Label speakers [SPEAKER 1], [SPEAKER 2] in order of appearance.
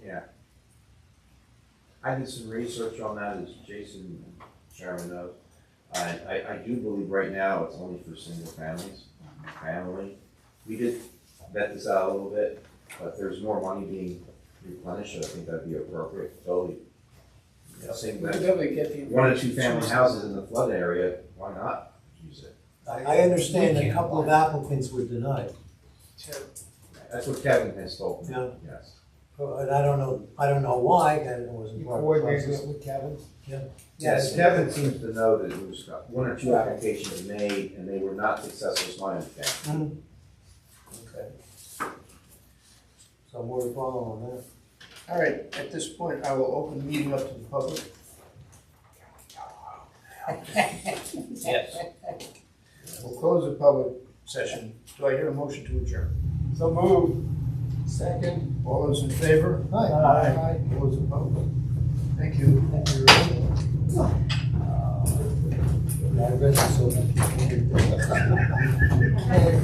[SPEAKER 1] I did some research on that, as Jason Sherman knows. I, I, I do believe right now it's only for single families, family. We did vet this out a little bit, but there's more money being replenished, I think that'd be appropriate, totally. You know,
[SPEAKER 2] We
[SPEAKER 1] Same
[SPEAKER 2] could
[SPEAKER 1] as
[SPEAKER 2] definitely get the.
[SPEAKER 1] one or two family houses in the flood area, why not use it?
[SPEAKER 3] I, I understand a couple of applicants were denied,
[SPEAKER 1] That's what Kevin has told me,
[SPEAKER 3] Yeah.
[SPEAKER 1] yes.
[SPEAKER 3] but I don't know, I don't know why, that wasn't
[SPEAKER 2] You
[SPEAKER 3] part of the
[SPEAKER 2] coordinated
[SPEAKER 3] process.
[SPEAKER 2] it with Kevin?
[SPEAKER 1] Yes, Kevin seems to know that there was one or two applications made, and they were not successful, is my understanding.
[SPEAKER 3] Okay. So more to follow on that.
[SPEAKER 2] All right, at this point, I will open the meeting up to the public.
[SPEAKER 4] Yes.
[SPEAKER 2] We'll close the public session. Do I hear a motion to adjourn?
[SPEAKER 5] So move.
[SPEAKER 2] Second. All those in favor?
[SPEAKER 3] Aye.
[SPEAKER 2] Aye. All those opposed? Thank you. Thank you.
[SPEAKER 3] Yeah, I read it, so-